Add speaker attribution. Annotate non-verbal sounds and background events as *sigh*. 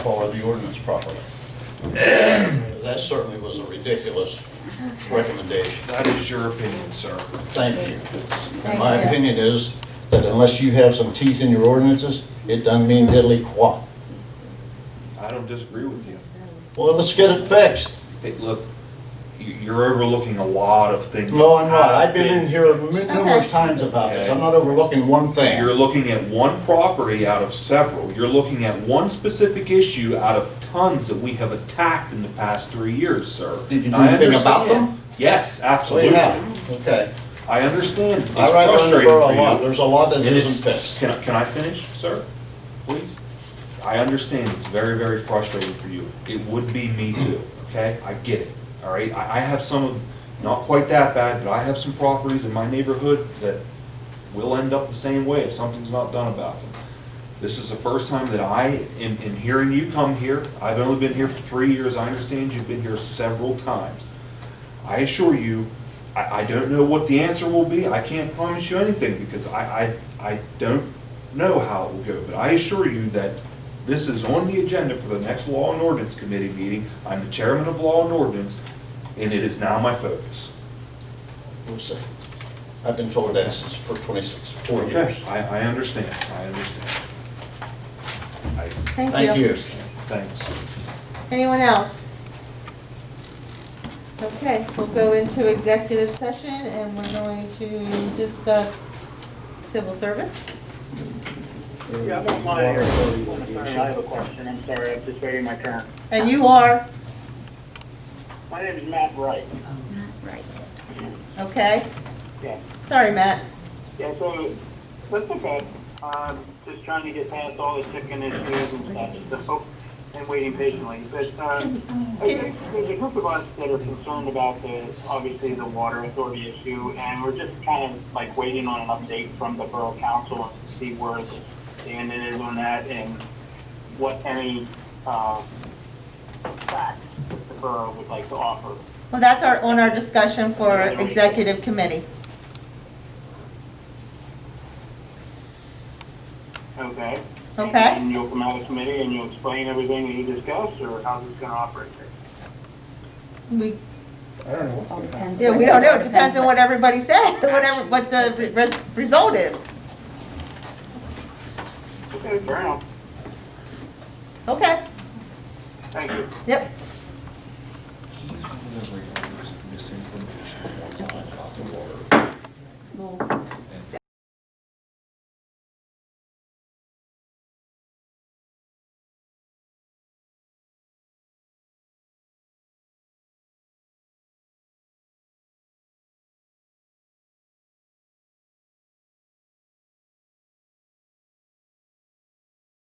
Speaker 1: follow the ordinance properly. That certainly was a ridiculous recommendation.
Speaker 2: That is your opinion, sir.
Speaker 1: Thank you.
Speaker 3: Thank
Speaker 1: My
Speaker 3: you.
Speaker 1: opinion is that unless you have some teeth in your ordinances, it doesn't mean diddly quat.
Speaker 2: I don't disagree with you.
Speaker 1: Well, let's get it fixed.
Speaker 2: Hey, look, you- you're overlooking a lot of things.
Speaker 1: No, I'm not. I've been in here numerous
Speaker 3: Okay.
Speaker 1: times about this. I'm not overlooking one
Speaker 2: You're
Speaker 1: thing.
Speaker 2: looking at one property out of several. You're looking at one specific issue out of tons that we have attacked in the past three years, sir.
Speaker 1: Did you
Speaker 2: And
Speaker 1: do
Speaker 2: I
Speaker 1: anything about
Speaker 2: understand.
Speaker 1: them?
Speaker 2: Yes,
Speaker 1: So you
Speaker 2: absolutely.
Speaker 1: have, okay.
Speaker 2: I understand. It's
Speaker 1: I ride on the
Speaker 2: frustrating
Speaker 1: borough
Speaker 2: for
Speaker 1: a lot.
Speaker 2: you.
Speaker 1: There's a lot that
Speaker 2: And
Speaker 1: isn't
Speaker 2: it's,
Speaker 1: fixed.
Speaker 2: can, I- can I finish, sir? Please? I understand it's very, very frustrating for you. It would be me too, okay? I get it, all right? I, I have some, of not quite that bad, but I have some properties in my neighborhood that will end up the same way if something's not done about them. This is the first time that I, in, in hearing you come here, I've only been here for three years, I understand you've been here several times. I assure you, I, I don't know what the answer will be. I can't promise you anything because I, I, I don't know how it will go. But I assure you that this is on the agenda for the next Law and Ordinance Committee meeting. I'm the chairman of Law and Ordinance, and it is now my focus.
Speaker 1: We'll see. I've been told that since for 26, four years.
Speaker 2: Okay, I, I understand, I understand. I,
Speaker 3: Thank you.
Speaker 2: thanks.
Speaker 3: Anyone else? Okay, we'll go into executive session and we're going to discuss civil service.
Speaker 4: Yeah, I don't mind. I have a question, I'm sorry, I'm just waiting my turn.
Speaker 3: And you are,
Speaker 4: My name is Matt Wright.
Speaker 3: okay?
Speaker 4: Yeah.
Speaker 3: Sorry, Matt.
Speaker 4: Yeah, so, that's okay. Um, just trying to get past all the chicken issues and stuff, so, and waiting patiently. But, um, I think there's a group of us that are concerned about the, obviously, the water authority issue, and we're just kind of like waiting on an update from the borough council to see where the stand is on that and what any, uh, facts the borough would like to offer.
Speaker 3: Well, that's our, on our discussion for executive committee.
Speaker 4: Okay.
Speaker 3: Okay.
Speaker 4: And you'll come out of committee and you'll explain everything that you discussed, or how's this gonna operate?
Speaker 3: We,
Speaker 2: I don't know what's going on.
Speaker 3: yeah, we don't know, it depends on what everybody said, *laughs* whatever, what the re- res- result is.
Speaker 4: Okay, fair enough.
Speaker 3: Okay,
Speaker 4: Thank you.
Speaker 3: yep.